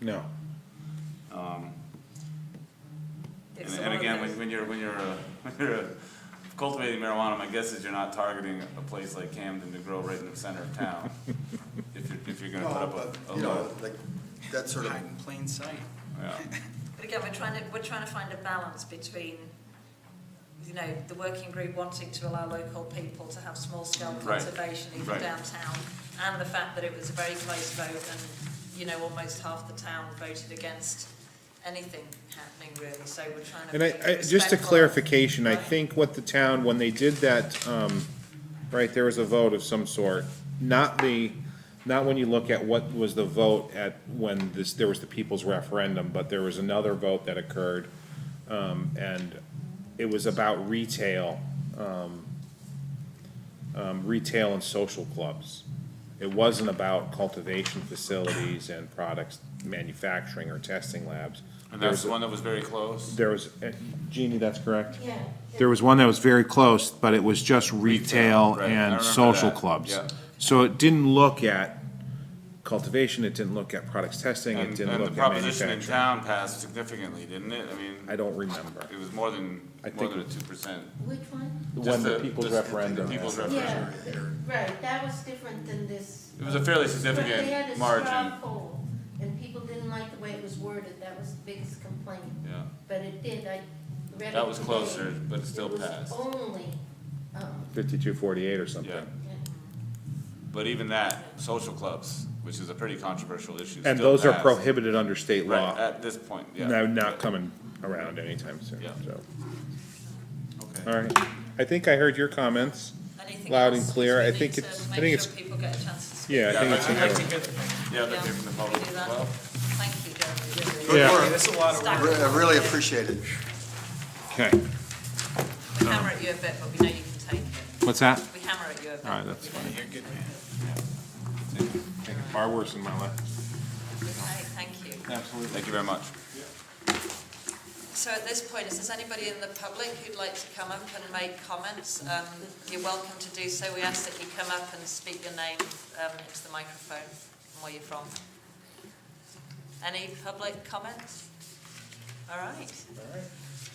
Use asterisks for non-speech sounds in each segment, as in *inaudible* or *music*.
No. If And, some and of again, them- when, when you're, *laughs* when you're, uh, when you're uh, cultivating marijuana, my guess is you're not targeting a place like Camden to grow right in the center of *laughs* town. If you're, if you're gonna put No, up a, a but, you know, lot, like, that sort of, Hide in plain sight. yeah. But again, we're trying to, we're trying to find a balance between, you know, the working group wanting to allow local people to have small scale Right. conservation even Right. downtown, and the fact that it was a very close vote and, you know, almost half the town voted against anything happening really, so we're trying to. And I, be I, just a respectful of- clarification, I Right. think what the town, when they did that, um, right, there was a vote of some sort. Not the, not when you look at what was the vote at, when this, there was the people's referendum, but there was another vote that occurred. Um, and it was about retail, um, um, retail and social clubs. It wasn't about cultivation facilities and products manufacturing or testing labs. And There that's was the one that was very close. there was, uh, Jeannie, that's correct? Yeah. There was one that was very close, but it was just retail right, I and remember social that, clubs. yeah. So it didn't look at cultivation, it didn't look at products testing, it And, didn't and the look at proposition in manufacturing. town passed significantly, didn't it? I I mean, don't remember. it was more than, I more think- than a two percent. Which one? When the people's referendum. uh, The people's referendum. Yeah, right, that was different than this. It was a fairly But they had a significant straw margin, poll, and people didn't like the way it was worded, that was the biggest complaint. yeah. But it did, I read it. That was today. closer, but it still passed. It was only, um, Fifty-two forty-eight or something. Yeah. yeah. But even that, social clubs, which is a pretty controversial issue, And still those are passed. prohibited under state Right, law. at this point, yeah. No, not coming around anytime soon, Yeah. so, Okay. all right. I think I heard your comments. Anything Loud and else? clear. We I need think to it's- I make think sure it's- people get a chance to speak. Yeah, I think I'd it's. like to in there. get- Yeah, they'd hear from the public We do as that. well. Thank you, Jeremy, really. Yeah. Okay, That's a lot of work. Stack re- I it. really appreciate it. Okay, We hammer at you a bit, but we know you can take it. what's that? We hammer at you a bit. All right, that's fine. You're a good man. Far worse in my life. Okay, thank you. Absolutely. Thank you very much. So at this point, is there anybody in the public who'd like to come up and make comments? Um, you're welcome to do so. We ask that you come up and speak your name um, into the microphone and where you're from. Any public comments? All right.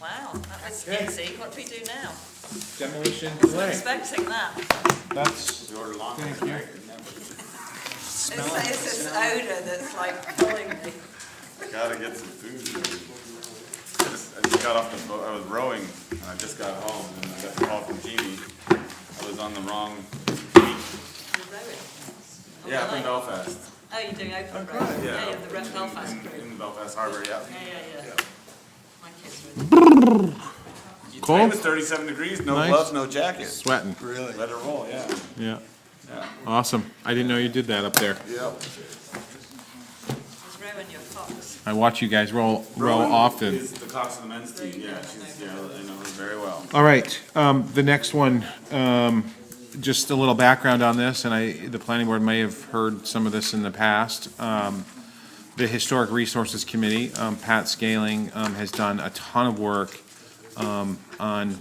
Wow, that was easy. What do we do now? Demolition Wasn't delay, expecting that. that's. We ordered long. It's, it's this odour that's like killing me. Gotta get some food. I just- I just got off the boat, I was rowing, and I just got home, and I got the call from Jeannie. I was on the wrong beach. You're rowing. Yeah, up in Oh, Belfast. you're doing open rowing. Yeah. Yeah, you're the Red Belfast In- group. In Belfast Harbor, yeah. Yeah, yeah, yeah. My kids were. Today was thirty-seven degrees, no Nice. gloves, no jacket. Sweating, Really? Let it roll, yeah. yeah. Yeah. Awesome. I didn't know you did that up there. Yeah. It's Rowan, your fox. I watch you guys roll, roll Rowan often. Is the cox of the men's team, yeah, she's, yeah, I know her very well. All right, um, the next one, um, just a little background on this, and I, the planning board may have heard some of this in the past. Um, the Historic Resources Committee, um, Pat Scaling, um, has done a ton of work, um, on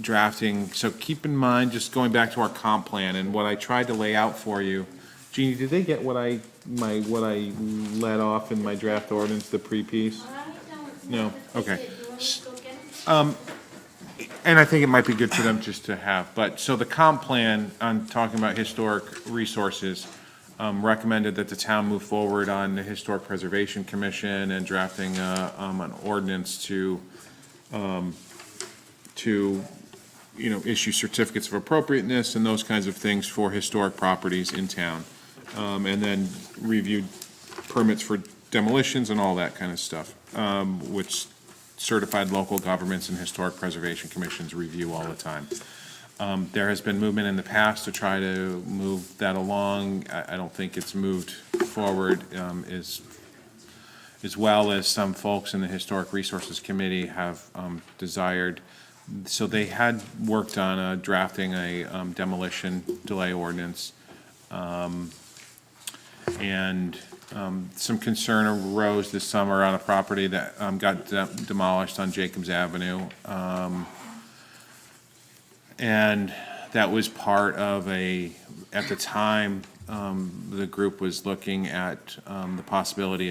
drafting. So keep in mind, just going back to our comp plan and what I tried to lay out for you. Jeannie, did they get what I, my, what I let off in my draft ordinance, the pre-piece? I don't No, know if they okay. did. Do you want me to go get it? And I think it might be good for them just to have, but, so the comp plan, on talking about historic resources, um, recommended that the town move forward on the Historic Preservation Commission and drafting, uh, um, an ordinance to, um, to, you know, issue certificates of appropriateness and those kinds of things for historic properties in town. Um, and then reviewed permits for demolitions and all that kind of stuff, um, which certified local governments and historic preservation commissions review all the time. Um, there has been movement in the past to try to move that along. I, I don't think it's moved forward, um, as, as well as some folks in the Historic Resources Committee have, um, desired. So they had worked on, uh, drafting a um, demolition delay ordinance um, and um, some concern arose this summer on a property that um, got de- demolished on Jacobs Avenue. Um, And that was part of a, at the time, um, the group was looking at um, the possibility of